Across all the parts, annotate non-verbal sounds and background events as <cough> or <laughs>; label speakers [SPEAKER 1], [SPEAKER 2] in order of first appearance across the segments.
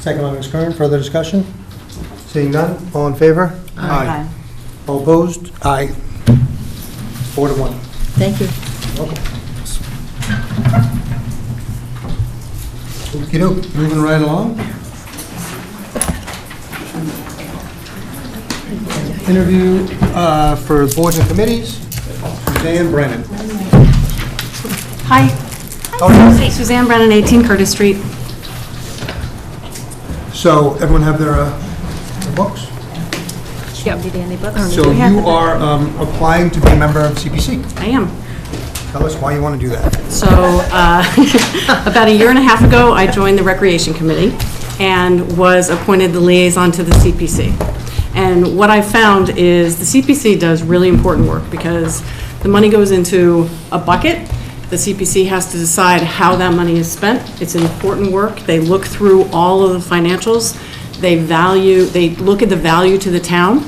[SPEAKER 1] Second by Ms. Kern, further discussion? Seeing none, all in favor?
[SPEAKER 2] Aye.
[SPEAKER 1] All opposed? Aye. Four to one.
[SPEAKER 2] Thank you.
[SPEAKER 1] Okey-doke, moving right along. Interview uh, for boards and committees, Dan Brennan.
[SPEAKER 3] Hi,
[SPEAKER 1] Oh,
[SPEAKER 3] Suzanne Brennan, 18 Curtis Street.
[SPEAKER 1] So everyone have their uh, their books?
[SPEAKER 3] Yep.
[SPEAKER 1] So you are um, applying to be a member of CPC.
[SPEAKER 3] I am.
[SPEAKER 1] Tell us why you want to do that.
[SPEAKER 3] So, uh, <laughs> about a year and a half ago, I joined the Recreation Committee and was appointed the liaison to the CPC. And what I found is the CPC does really important work because the money goes into a bucket. The CPC has to decide how that money is spent. It's important work. They look through all of the financials. They value, they look at the value to the town.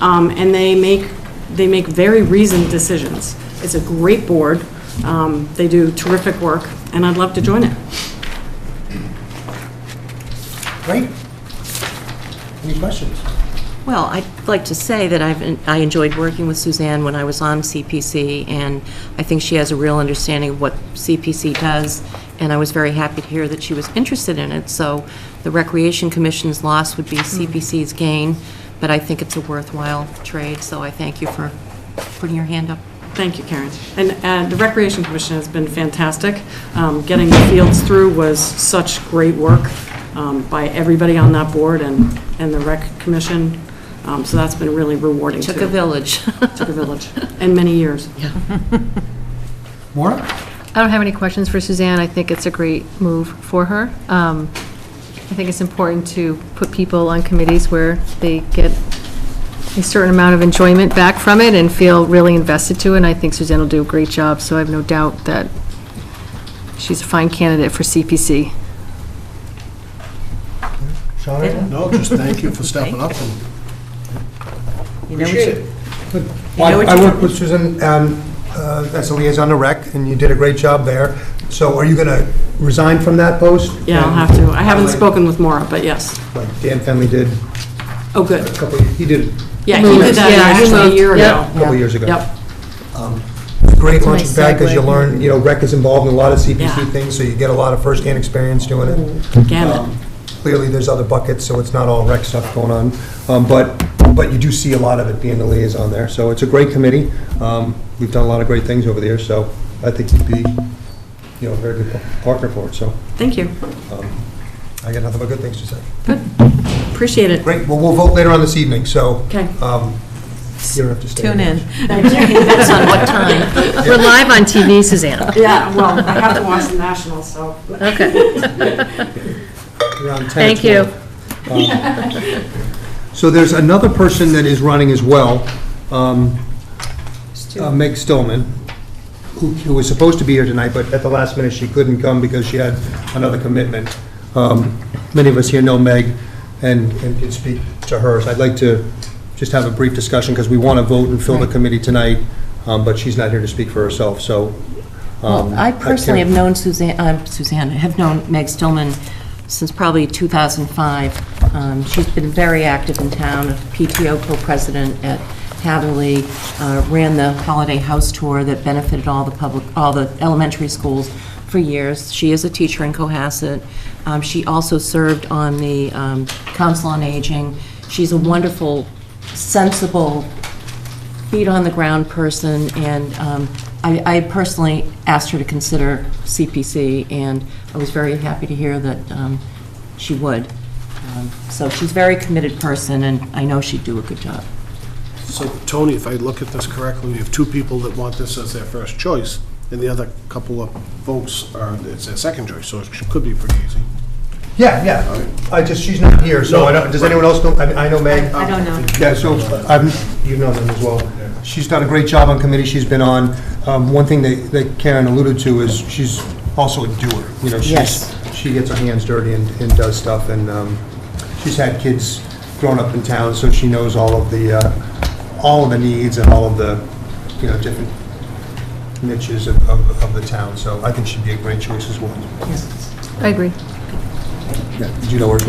[SPEAKER 3] um, and they make, they make very reasoned decisions. It's a great board, um, they do terrific work, and I'd love to join it.
[SPEAKER 1] Great. Any questions?
[SPEAKER 2] Well, I'd like to say that I've, I enjoyed working with Suzanne when I was on CPC, and I think she has a real understanding of what CPC does, and I was very happy to hear that she was interested in it, so the Recreation Commission's loss
[SPEAKER 4] Hmm.
[SPEAKER 2] would be CPC's gain, but I think it's a worthwhile trade, so I thank you for putting your hand up.
[SPEAKER 3] Thank you, Karen. And uh, the Recreation Commission has been fantastic. Um, Getting the fields through was such great work um, by everybody on that board and, and the Rec Commission, Um, so that's been really rewarding, too.
[SPEAKER 2] Took a village.
[SPEAKER 3] <laughs> Took a village, and many years.
[SPEAKER 1] Maura?
[SPEAKER 5] I don't have any questions for Suzanne. I think it's a great move for her. Um, I think it's important to put people on committees where they get a certain amount of enjoyment back from it and feel really invested to it, and I think Suzanne will do a great job, so I have no doubt that she's a fine candidate for CPC.
[SPEAKER 1] Sean?
[SPEAKER 6] No, just thank you for stepping up and
[SPEAKER 1] Appreciate it. Well, I worked with Susan um, uh, as a liaison to rec, and you did a great job there. So are you going to resign from that post?
[SPEAKER 3] Yeah, I'll have to. I haven't spoken with Maura, but yes.
[SPEAKER 1] Like Dan Fenley did
[SPEAKER 3] Oh, good.
[SPEAKER 1] a couple, he did
[SPEAKER 3] Yeah, he did that
[SPEAKER 5] Yeah, he
[SPEAKER 3] actually a
[SPEAKER 5] moved.
[SPEAKER 3] year ago.
[SPEAKER 5] Yep.
[SPEAKER 1] a couple years ago.
[SPEAKER 3] Yep.
[SPEAKER 1] Great
[SPEAKER 5] a
[SPEAKER 1] lunch
[SPEAKER 5] nice
[SPEAKER 1] and pack, because you
[SPEAKER 5] segue.
[SPEAKER 1] learn, you know, rec is involved in a lot of CPC
[SPEAKER 3] Yeah.
[SPEAKER 1] things, so you get a lot of first-hand experience doing it.
[SPEAKER 3] Gamut.
[SPEAKER 1] Um, Clearly, there's other buckets, so it's not all rec stuff going on, Um, but, but you do see a lot of it being the liaison there. So it's a great committee. Um, We've done a lot of great things over the years, so I think you'd be, you know, a very good partner for it, so
[SPEAKER 3] Thank you.
[SPEAKER 1] I got nothing but good things to say.
[SPEAKER 3] Appreciate it.
[SPEAKER 1] Great, well, we'll vote later on this evening, so.
[SPEAKER 3] Okay.
[SPEAKER 1] um, You don't have to stay.
[SPEAKER 4] Tune in.
[SPEAKER 2] Depends on what time.
[SPEAKER 5] We're live on TV, Suzanne.
[SPEAKER 3] Yeah, well, I have to watch the Nationals, so.
[SPEAKER 5] Okay,
[SPEAKER 1] Around 10 or
[SPEAKER 5] thank you.
[SPEAKER 1] 12.
[SPEAKER 5] <laughs>
[SPEAKER 1] So there's another person that is running as well, um, uh, Meg Stillman, who who was supposed to be here tonight, but at the last minute, she couldn't come because she had another commitment. Um, Many of us here know Meg and and can speak to hers. I'd like to just have a brief discussion because we want to vote and fill the committee tonight, um, but she's not here to speak for herself, so. um,
[SPEAKER 2] Well, I personally have
[SPEAKER 1] can't-
[SPEAKER 2] known Suzanne, um, Suzanne, I have known Meg Stillman since probably 2005. Um, She's been very active in town, a PTO co-president at Hatherley, uh, ran the holiday house tour that benefited all the public, all the elementary schools for years. She is a teacher in Cohasset. Um, She also served on the um, Council on Aging. She's a wonderful, sensible feet on the ground person, and um, I I personally asked her to consider CPC, and I was very happy to hear that um, she would. Um, So she's a very committed person, and I know she'd do a good job.
[SPEAKER 6] So, Tony, if I look at this correctly, we have two people that want this as their first choice, and the other couple of folks are, it's their second choice, so it should- could be pretty easy.
[SPEAKER 1] Yeah, yeah. I just, she's not here, so I don't, does anyone else know? I I know Meg.
[SPEAKER 4] I don't know.
[SPEAKER 1] Yeah, so, I'm, you know them as well. She's done a great job on committees she's been on. Um, One thing that that Karen alluded to is she's also a doer. You know, she's,
[SPEAKER 2] Yes.
[SPEAKER 1] she gets her hands dirty and and does stuff, and um, she's had kids grown up in town, so she knows all of the, uh, all of the needs and all of the, you know, different niches of of of the town, so I think she'd be a great choice as well.
[SPEAKER 5] I agree.
[SPEAKER 1] Yeah, Did you know her?